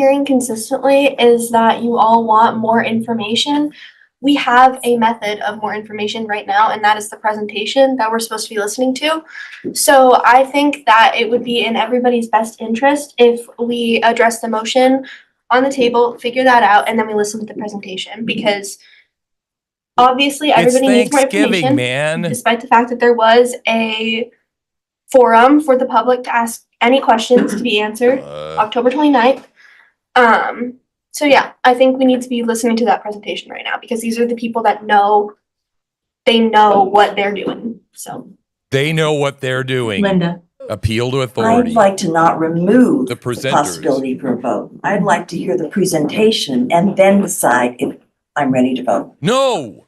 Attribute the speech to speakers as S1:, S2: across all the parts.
S1: hearing consistently is that you all want more information. We have a method of more information right now, and that is the presentation that we're supposed to be listening to. So I think that it would be in everybody's best interest if we address the motion on the table, figure that out, and then we listen to the presentation because obviously
S2: It's
S1: everybody needs more
S2: Thanksgiving,
S1: information
S2: man.
S1: despite the fact that there was a forum for the public to ask any questions to be answered,
S2: Uh,
S1: October 29th. Um, so yeah, I think we need to be listening to that presentation right now because these are the people that know, they know what they're doing, so.
S2: They know what they're doing.
S3: Linda,
S2: Appeal to
S4: I'd
S2: authority.
S4: like to not remove
S2: The
S4: the
S2: presenters.
S4: possibility for a vote. I'd like to hear the presentation and then decide if I'm ready to vote.
S2: No.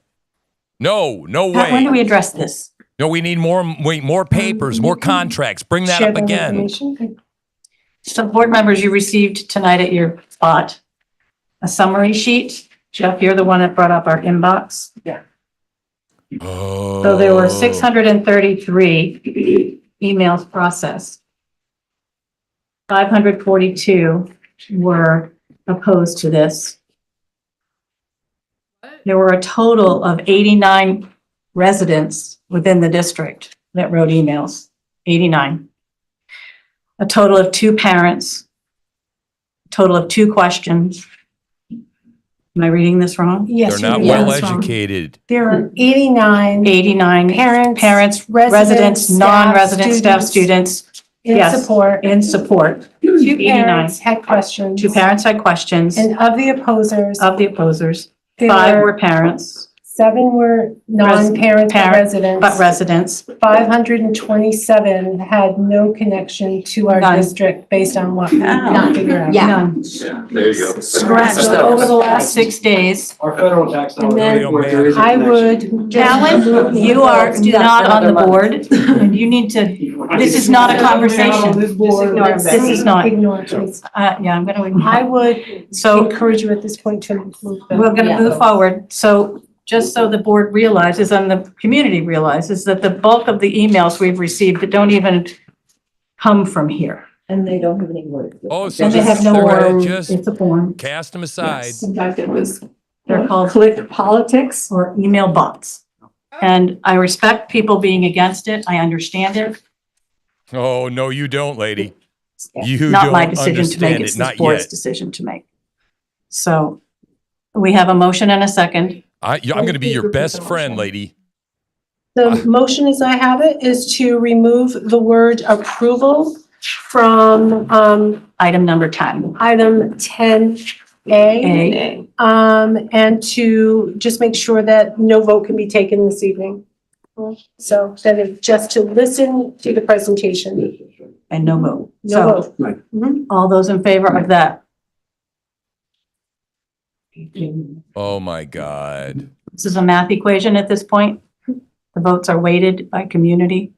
S2: No, no
S3: how- when do we Um,
S2: way.
S3: address this?
S2: No, we need more, wait, more papers, more contracts. Bring that up again.
S3: So board members, you received tonight at your spot a summary sheet. Jeff, you're the one that brought up our inbox.
S2: Oh.
S3: So there were 633 emails processed. 542 were opposed to this. There were a total of 89 residents within the district that wrote emails, 89. A total of two parents, total of two questions. Am I reading this wrong?
S5: Yes.
S2: They're not
S5: you
S2: well
S5: do.
S2: educated.
S5: There are eighty-nine
S3: 89
S5: parents.
S3: parents, residents, non-resident staff, students
S5: In
S3: yes.
S5: support.
S3: in support.
S5: Two
S3: 89.
S5: parents had questions.
S3: Two parents had questions
S5: And of the opposers,
S3: of the opposers.
S5: there
S3: Five
S5: were,
S3: were parents,
S5: seven were non-parents but
S3: parent,
S5: residents.
S3: but residents.
S5: Five hundred and twenty-seven had no connection to our
S3: None.
S5: district based on what we did not figure out.
S6: Yeah.
S3: None.
S7: There you go.
S4: Scratch
S3: So Over the last six days,
S7: Our federal tax
S5: And
S7: dollars.
S5: then
S7: really work. There is a
S5: I
S7: connection.
S5: would. just-
S3: Alan, you are not on the board and you need to, this is not a conversation.
S5: This board-
S3: ignore it. This is not-
S5: Ignore, it, please.
S3: uh, yeah, I'm going to.
S5: I would
S3: So
S5: encourage you at this point to move. the-
S3: We're gonna move forward, so just so the board realizes and the community realizes that the bulk of the emails we've received that don't even come from here.
S4: And they don't have any words.
S2: Oh, so
S3: And they
S2: just,
S3: have no
S2: they're
S3: form,
S2: gonna just
S3: it's a form,
S2: cast them aside.
S8: In fact, it was
S3: they're called
S8: click politics.
S3: or email bots. And I respect people being against it, I understand it,
S2: Oh, no, you don't, lady. You
S3: not
S2: don't
S3: my decision to make,
S2: understand
S3: it's
S2: it,
S3: this
S2: not
S3: board's
S2: yet.
S3: decision to make. So we have a motion and a second,
S2: I, yeah, I'm gonna be your
S8: Repeat the
S2: best friend,
S8: motion.
S2: lady.
S5: The motion as I have it is to remove the word approval from um
S3: item number ten.
S5: item ten A.
S3: A,
S5: Um, and to just make sure that no vote can be taken this evening. So that is just to listen to the presentation,
S3: and no vote.
S5: no
S3: So
S5: vote.
S3: all those in favor of that?
S2: Oh, my God.
S3: This is a math equation at this point. The votes are weighted by community.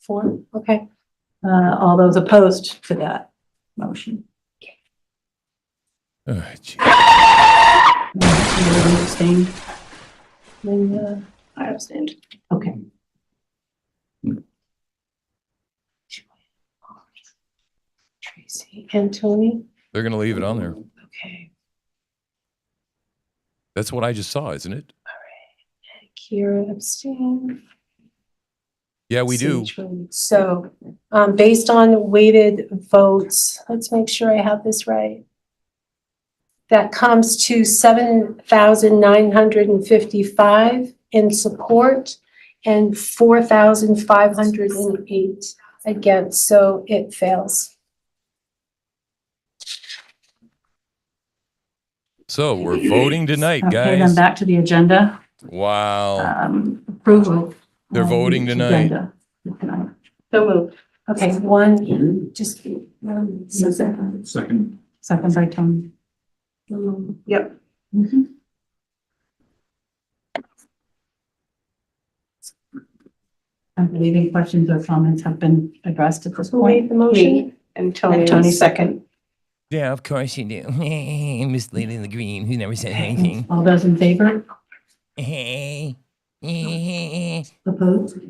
S5: Four, okay.
S3: Uh, all those opposed to that motion.
S2: Oh, gee.
S3: Abstained.
S5: Linda.
S8: I abstained.
S3: Okay.
S5: Tracy and Tony,
S2: They're gonna leave it on there.
S5: okay,
S2: That's what I just saw, isn't it?
S5: Kira abstained.
S2: Yeah, we do.
S5: So, um, based on weighted votes, let's make sure I have this right. That comes to seven thousand nine hundred and fifty-five in support and four thousand five hundred and eight against, so it fails.
S2: So we're voting tonight,
S3: Okay, then
S2: guys.
S3: back to the agenda.
S2: Wow.
S3: Um, Approval.
S2: They're
S3: of
S2: voting
S3: the
S2: tonight.
S3: agenda. Tonight.
S5: So moved. Okay, one, just, um,
S7: Second.
S3: Second by Tony.
S8: Yep.
S3: I believe any questions or comments have been addressed at this
S5: who
S3: point.
S5: made the motion?
S8: And
S3: And Tony second.
S2: Yeah, of course you do. Miss Lady in the Green, who never said
S3: All those in favor?
S2: anything.
S3: Opposed?